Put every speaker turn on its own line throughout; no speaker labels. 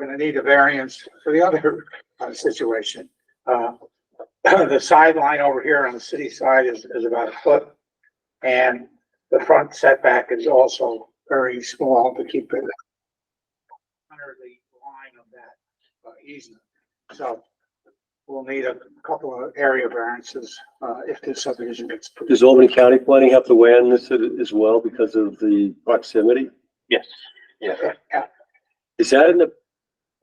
gonna need a variance for the other uh, situation. Uh, the sideline over here on the city side is, is about a foot. And the front setback is also very small to keep it under the line of that uh, easement. So we'll need a couple of area variances, uh, if this subdivision gets approved.
Does Albany County Planning have to weigh in this a- as well because of the proximity?
Yes.
Yeah,
Is that in the,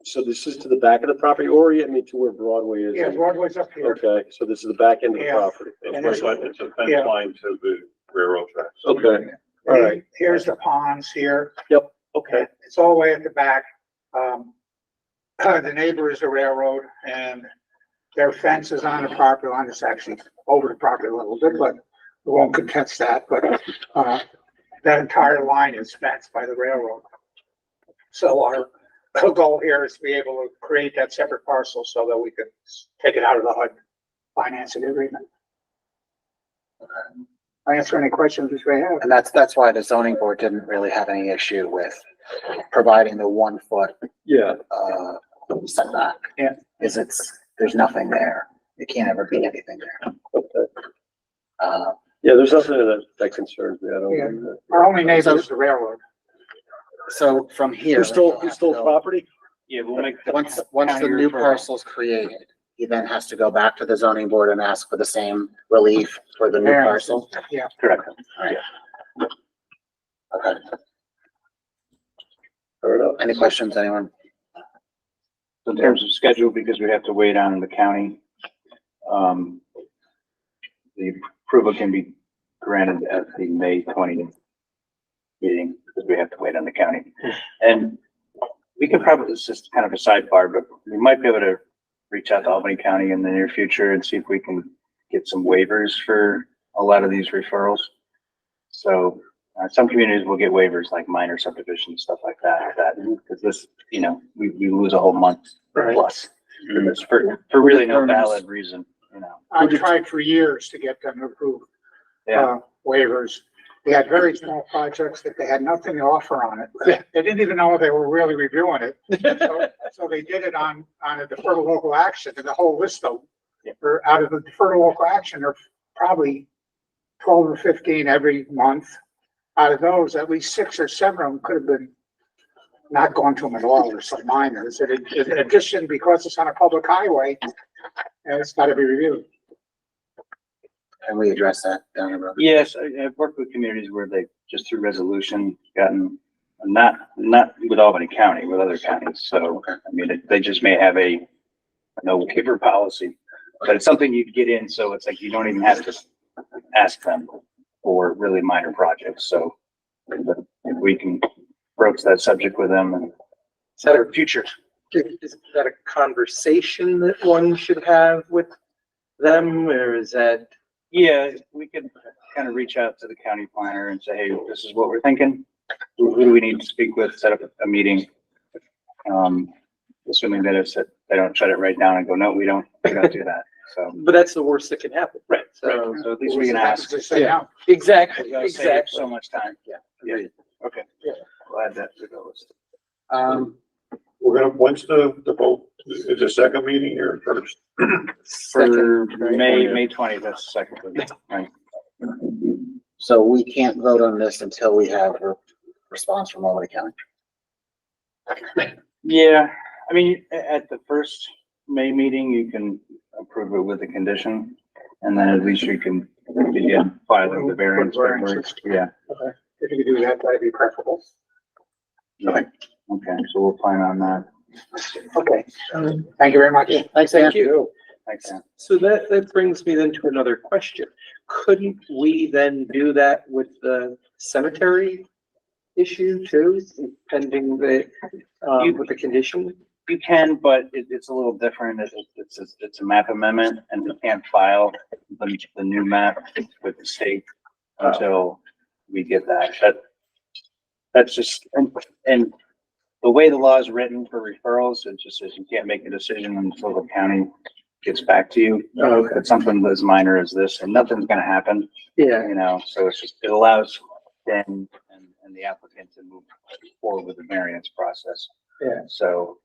so this is to the back of the property or, I mean, to where Broadway is?
yeah, Broadway's up here.
Okay, so this is the back end of the
Yeah.
property.
And
It's like, it's a fence line to the railroad tracks.
Okay, all right.
Here's the ponds here.
okay.
Okay, it's all the way at the back. Um, the neighbor is the railroad and their fence is on the property line. It's actually over the property a little bit, but we won't contest that, but, uh, that entire line is fenced by the railroad. So our goal here is to be able to create that separate parcel so that we can take it out of the HUD financing agreement. I answer any questions that you may have.
And that's, that's why the zoning board didn't really have any issue with providing the one foot,
Yeah,
uh, setback.
Yeah.
Is it's, there's nothing there. It can't ever be anything there.
okay.
Uh,
Yeah, there's nothing that, that concerns me. I don't.
Yeah.
think that-
Our only neighbor is the railroad.
so from here.
Who stole,
he'll
who
have
stole
to go-
property?
Yeah, we'll make.
Once, once the new parcel's created, he then has to go back to the zoning board and ask for the same relief for the new
Yeah.
parcel.
Yeah.
Correct. Alright. Okay,
Fair enough.
any questions, anyone?
In terms of schedule, because we have to wait on the county, um, the approval can be granted at the May twentieth meeting, because we have to wait on the county. And we could probably, this is kind of a sidebar, but we might be able to reach out to Albany County in the near future and see if we can get some waivers for a lot of these referrals. So, uh, some communities will get waivers like minor subdivisions, stuff like that, that, because this, you know, we, we lose a whole month plus for this, for, for really no valid reason, you know.
I've tried for years to get them to approve
Yeah.
uh, waivers. They had very small projects that they had nothing to offer on it. They didn't even know they were really reviewing it. So- So they did it on, on a deferred local action and the whole list of,
Yeah.
or out of the deferred local action are probably twelve or fifteen every month. Out of those, at least six or seven of them could have been not gone to them at all or some minors. In in addition, because it's on a public highway, and it's gotta be reviewed.
Can we address that down the road?
Yes, I, I've worked with communities where they, just through resolution, gotten, not, not with Albany County, with other counties, so, I mean, it- they just may have a no waiver policy, but it's something you'd get in, so it's like you don't even have to ask them for really minor projects, so but if we can broach that subject with them and
Is that a,
future.
is that a conversation that one should have with them, or is that?
Yeah, we could kind of reach out to the county planner and say, hey, this is what we're thinking. Who who do we need to speak with? Set up a meeting. Um, assuming that it's, they don't shut it right down and go, no, we don't, we don't do that. So,
But that's the worst that can happen. Right. So,
so at least we can ask.
Just say no.
exactly,
We gotta save
exactly.
So much time.
Yeah.
Yeah, okay.
Yeah.
Glad that we go.
Um,
We're gonna, when's the, the vote? Is the second meeting or first?
Second.
For May, May twentieth, that's the second. one, Right.
So we can't vote on this until we have a response from Albany County.
Yeah, I mean, a- at the first May meeting, you can approve it with a condition, and then at least you can begin filing the variance paperwork.
Variances.
Yeah,
If you could do that, that'd be preferable.
yeah, okay, so we'll plan on that.
Okay. Thank you very much.
Thanks, Ann.
Thank you.
Thanks, Dan.
So that, that brings me then to another question. Couldn't we then do that with the cemetery issue too, pending the, um, with the condition?
You can, but it, it's a little different, it's, it's, it's- it's a map amendment, and we can't file the, the new map with the state until we get that, that, that's just, and, and the way the law is written for referrals, it just says you can't make a decision until the county gets back to you.
Oh, Okay.
It's something as minor as this, and nothing's gonna happen,
Yeah,
you know, so it's just, it allows then, and, and the applicant to move forward with the variance process.
Yeah.
So